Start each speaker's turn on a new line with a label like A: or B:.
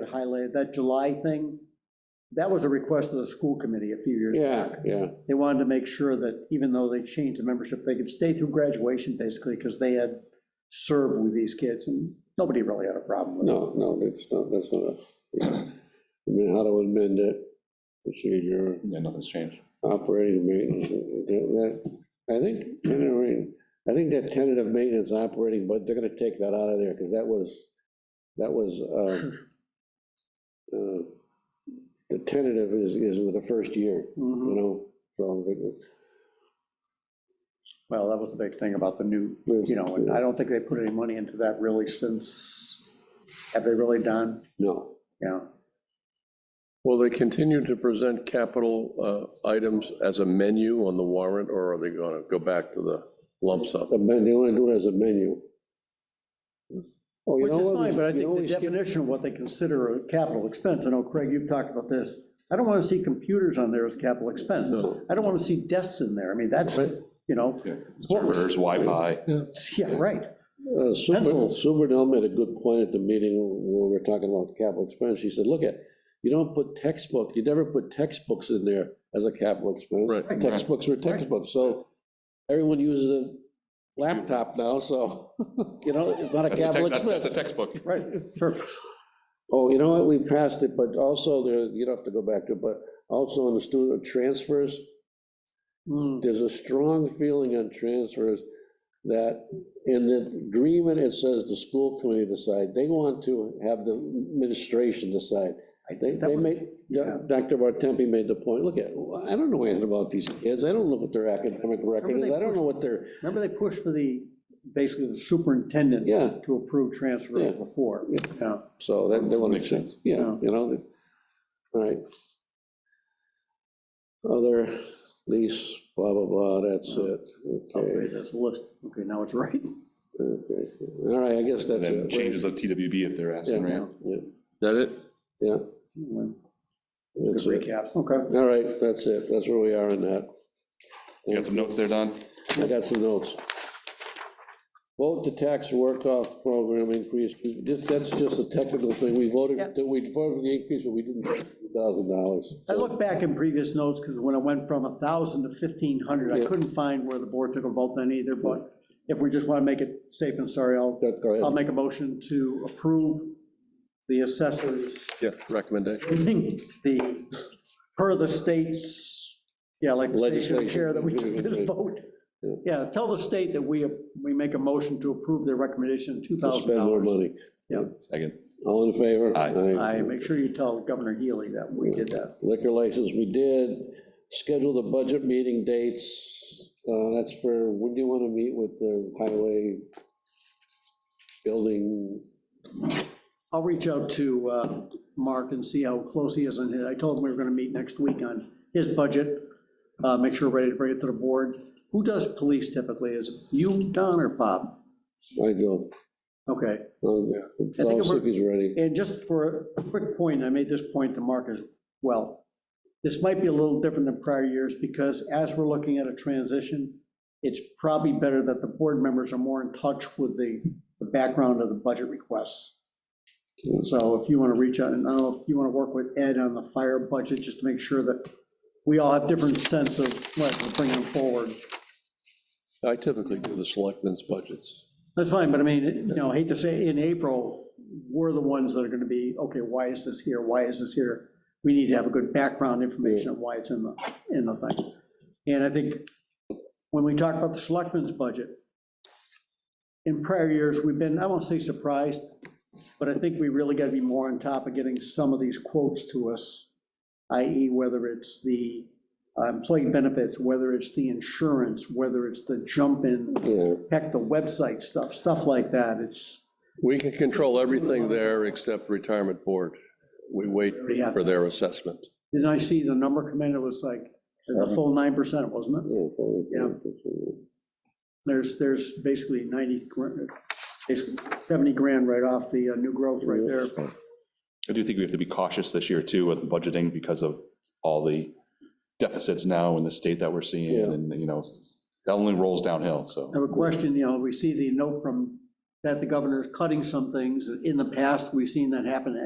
A: had highlighted, that July thing, that was a request of the school committee a few years
B: Yeah,
A: back.
B: yeah,
A: They wanted to make sure that even though they changed the membership, they could stay through graduation basically because they had served with these kids and nobody really had a problem with it.
B: no, no, that's not, that's not a, I mean, how to amend it, procedure,
C: Yeah, nothing's changed.
B: operating maintenance, that, that- I think, you know, I mean, I think that tentative maintenance operating, but they're gonna take that out of there, because that was, that was, uh, uh, the tentative is, is with the first year, you
A: Mhm.
B: know, so, but-
A: Well, that was the big thing about the new, you know, and I don't think they put any money into that really since, have they really done?
B: no,
A: Yeah.
D: Will they continue to present capital uh, items as a menu on the warrant, or are they going to go back to the lump sum?
B: the men- they wanna do it as a menu. Oh, you
A: Which
B: know
A: is
B: what?
A: fine, but I
B: You know
A: think
B: what
A: the
B: we skipped?
A: definition of what they consider a capital expense, I know, Craig, you've talked about this. I don't want to see computers on there as capital expense.
D: No.
A: I don't want to see desks in there. I mean, that's,
D: Right.
A: you know,
C: Yeah, Servers, Wi-Fi.
A: yeah, right.
B: Uh, Super,
A: Pencil.
B: Super Dell made a good point at the meeting when we were talking about the capital expense. She said, look at, you don't put textbook, you never put textbooks in there as a capital expense.
D: Right.
A: Right.
B: Textbooks were textbooks, so everyone uses a laptop now, so, you know, it's not a
C: That's a
B: capital
C: tech- that-
B: expense.
C: That's a textbook.
A: Right, sure.
B: Oh, you know what, we passed it, but also there, you don't have to go back to, it, but also on the student transfers,
A: Mm,
B: there's a strong feeling on transfers that in the agreement, it says the school committee decide, they want to have the administration decide.
A: I
B: They,
A: think that
B: they
A: was-
B: made,
A: yeah.
B: Dr. Bartempi made the point, look at, I don't know anything about these kids, I don't know what their academic record is, I don't know what their,
A: Remember they pushed for the, basically the superintendent
B: Yeah.
A: to approve transfers
B: Yeah.
A: before?
B: Yeah.
A: Yeah.
B: so that, they want to.
C: Makes sense.
B: Yeah,
A: Yeah.
B: you know, the- all right. Other lease, blah, blah, blah, that's
A: Oh.
B: it, okay,
A: Okay, that's a list. Okay, now it's right.
B: okay, all right, I guess
C: And
B: that's
C: then
B: it.
C: changes of TWB if they're asking,
B: Yeah.
C: right?
B: Yeah,
D: That it?
B: yeah.
A: Good
B: That's it.
A: recap. Okay.
B: All right, that's it. That's where we are on that.
C: You got some notes there, Don?
B: I got some notes. Vote to tax work-off program increase. We just- That's just a technical thing. We voted,
A: Yeah.
B: that we voted for the increase, but we didn't, thousand dollars.
A: I looked back in previous notes, because when I went from 1,000 to 1,500, I
B: Yeah.
A: couldn't find where the board took a vote then either, but if we just want to make it safe and sorry, I'll,
B: Go
A: I'll
B: ahead.
A: make a motion to approve the assessor's,
D: Yeah, recommendation.
A: the, per the state's, yeah, like the station of
B: Legislation.
A: care that we took this
B: Right.
A: vote.
B: Yeah.
A: Yeah, tell the state that we, we make a motion to approve their recommendation,
B: We'll
A: $2,000.
B: Spend more money.
C: Second.
B: All in favor?
C: Aye.
A: I, make sure you tell Governor Healy that we did that.
B: Liquor license, we did. Schedule the budget meeting dates. Uh, That's for, when do you want to meet with the highway building?
A: I'll reach out to uh, Mark and see how close he is on it. I told him we were going to meet next week on his budget, uh, make sure we're ready to bring it to the board. Who does police typically? Is it you, Don, or Bob?
B: I do.
A: Okay,
B: Um,
A: I think
B: I'll
A: it
B: see if
A: worked.
B: he's ready.
A: and just for a quick point, I made this point to Mark as well. This might be a little different than prior years, because as we're looking at a transition, it's probably better that the board members are more in touch with the, the background of the budget requests. So if you want to reach out, and I don't know if you want to work with Ed on the fire budget, just to make sure that we all have different sense of what we're bringing forward.
D: I typically do the selectmen's budgets.
A: That's fine, but I mean, you know, I hate to say, in April, we're the ones that are gonna be, okay, why is this here, why is this here? We need to have a good background information of why it's in the, in the thing. And I think when we talk about the selectmen's budget, in prior years, we've been, I won't say surprised, but I think we really gotta be more on top of getting some of these quotes to us, i.e. whether it's the uh, employee benefits, whether it's the insurance, whether it's the jump-in
B: Yeah.
A: heck, the website stuff, stuff like that, it's,
D: We can control everything there except retirement board. We wait
A: Yeah.
D: for their assessment.
A: didn't I see the number come in, it was like, the full nine percent, wasn't it?
B: Yeah, probably.
A: Yeah. There's, there's basically ninety, gr- basically seventy grand right off the uh, new growth right there.
C: I do think we have to be cautious this year too with budgeting because of all the deficits now in the state that we're
B: Yeah.
C: seeing and, you know, that only rolls downhill, so.
A: I have a question, you know, we see the note from, that the governor is cutting some things, in the past, we've seen that happen